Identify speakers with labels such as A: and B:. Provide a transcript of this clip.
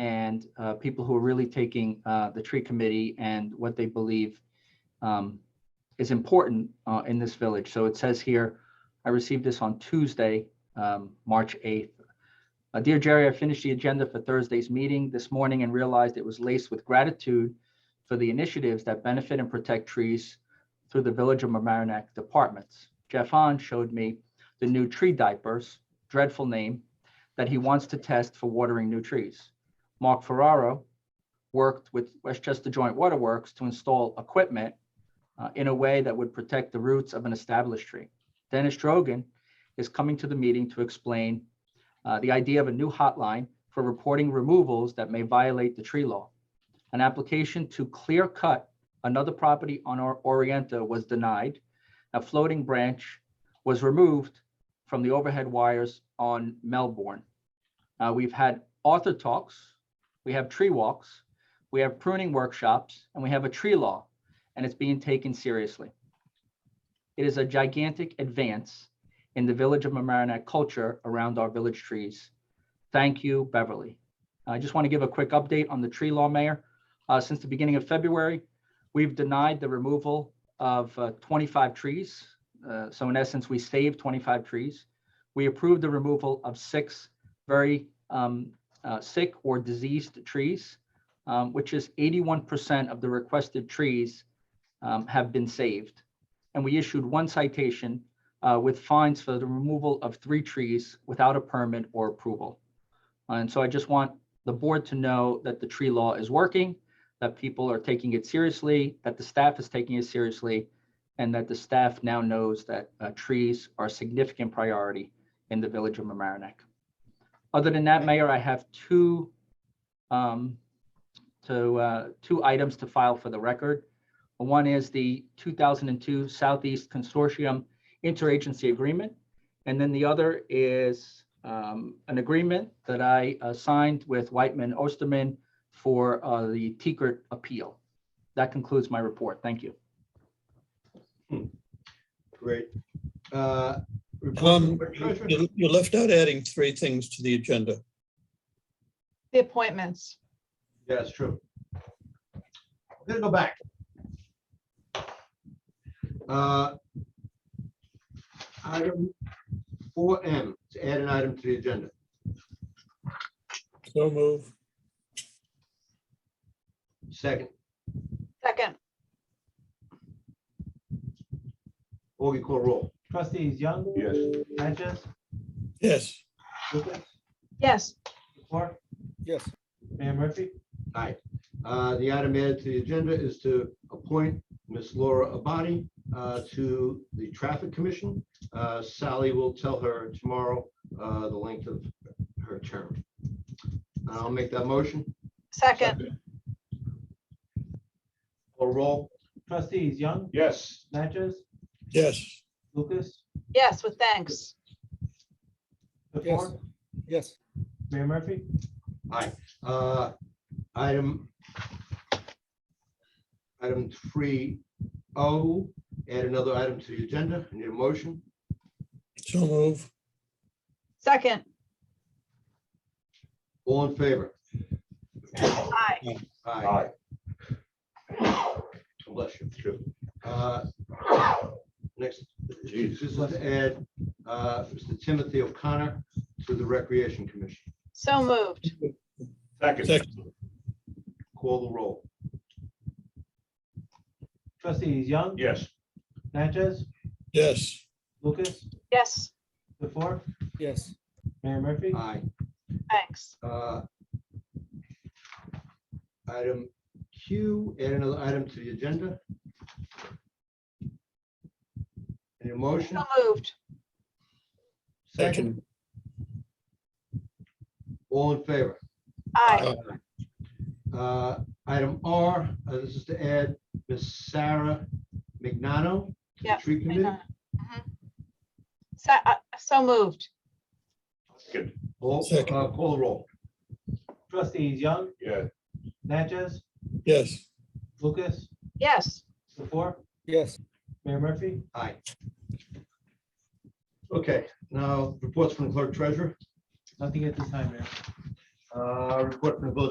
A: and uh, people who are really taking uh, the tree committee and what they believe um, is important uh, in this village. So it says here, I received this on Tuesday, um, March 8th. Uh, Dear Jerry, I finished the agenda for Thursday's meeting this morning and realized it was laced with gratitude for the initiatives that benefit and protect trees through the Village of Mamaroneck departments. Jeff Hahn showed me the new tree diapers, dreadful name, that he wants to test for watering new trees. Mark Ferraro worked with Westchester Joint Waterworks to install equipment uh, in a way that would protect the roots of an established tree. Dennis Drogan is coming to the meeting to explain uh, the idea of a new hotline for reporting removals that may violate the tree law. An application to clear cut another property on our Orienta was denied. A floating branch was removed from the overhead wires on Melbourne. Uh, we've had author talks, we have tree walks, we have pruning workshops, and we have a tree law, and it's being taken seriously. It is a gigantic advance in the Village of Mamaroneck culture around our village trees. Thank you, Beverly. I just want to give a quick update on the tree law, Mayor. Uh, since the beginning of February, we've denied the removal of uh, 25 trees. Uh, so in essence, we saved 25 trees. We approved the removal of six very um, uh, sick or diseased trees, um, which is 81% of the requested trees um, have been saved. And we issued one citation uh, with fines for the removal of three trees without a permit or approval. And so I just want the board to know that the tree law is working, that people are taking it seriously, that the staff is taking it seriously, and that the staff now knows that uh, trees are a significant priority in the village of Mamaroneck. Other than that, Mayor, I have two um, to, uh, two items to file for the record. One is the 2002 Southeast Consortium Interagency Agreement. And then the other is um, an agreement that I uh, signed with Whitman Osterman for uh, the Tikrit appeal. That concludes my report. Thank you.
B: Great. Uh, reports
C: Um,
B: from the treasurer?
C: you you left out adding three things to the agenda.
D: The appointments.
B: Yeah, it's true. I'm gonna go back. Uh, Item four M, to add an item to the agenda.
C: So move.
B: Second,
D: Second,
B: Augie call roll.
E: Trustees Young?
F: Yes.
E: Natchez?
C: Yes,
E: Lucas?
D: yes,
E: Before?
F: Yes.
E: Mayor Murphy?
B: Aye. Uh, The item added to the agenda is to appoint Miss Laura Abadi uh, to the Traffic Commission. Uh, Sally will tell her tomorrow uh, the length of her term. I'll make that motion.
D: second,
B: Call roll.
E: Trustees Young?
F: Yes.
E: Natchez?
C: yes,
E: Lucas?
D: yes, with thanks.
E: Before?
F: Yes.
E: Mayor Murphy?
B: Aye. Uh, Item, item three O, add another item to the agenda. Need a motion?
C: so move.
D: Second,
B: All in favor?
D: aye,
B: Aye.
F: Aye.
B: Bless you. True. Uh, Next,
F: Jeez.
B: this is to add uh, Mr. Timothy O'Connor to the Recreation Commission.
D: so moved.
F: Second.
C: Second.
B: Call the roll.
E: Trustees Young?
F: Yes.
E: Natchez?
C: Yes,
E: Lucas?
D: Yes,
E: Before?
F: Yes.
E: Mayor Murphy?
B: Aye.
D: thanks.
B: Uh, Item Q, add another item to the agenda. Any motion?
D: So moved.
B: Second,
C: second,
B: all in favor?
D: Aye,
B: Uh, Item R, uh, this is to add Miss Sarah Magnano to the
D: Yep,
B: tree committee.
D: Mhm. So, uh, so moved.
F: Second.
B: All,
C: Second.
B: uh, call the roll.
E: Trustees Young?
F: Yeah.
E: Natchez?
C: yes,
E: Lucas?
D: Yes,
E: Before?
F: Yes.
E: Mayor Murphy?
B: Aye. Okay, now reports from the clerk treasurer,
E: Nothing at this time, Mayor.
B: Uh, report from the village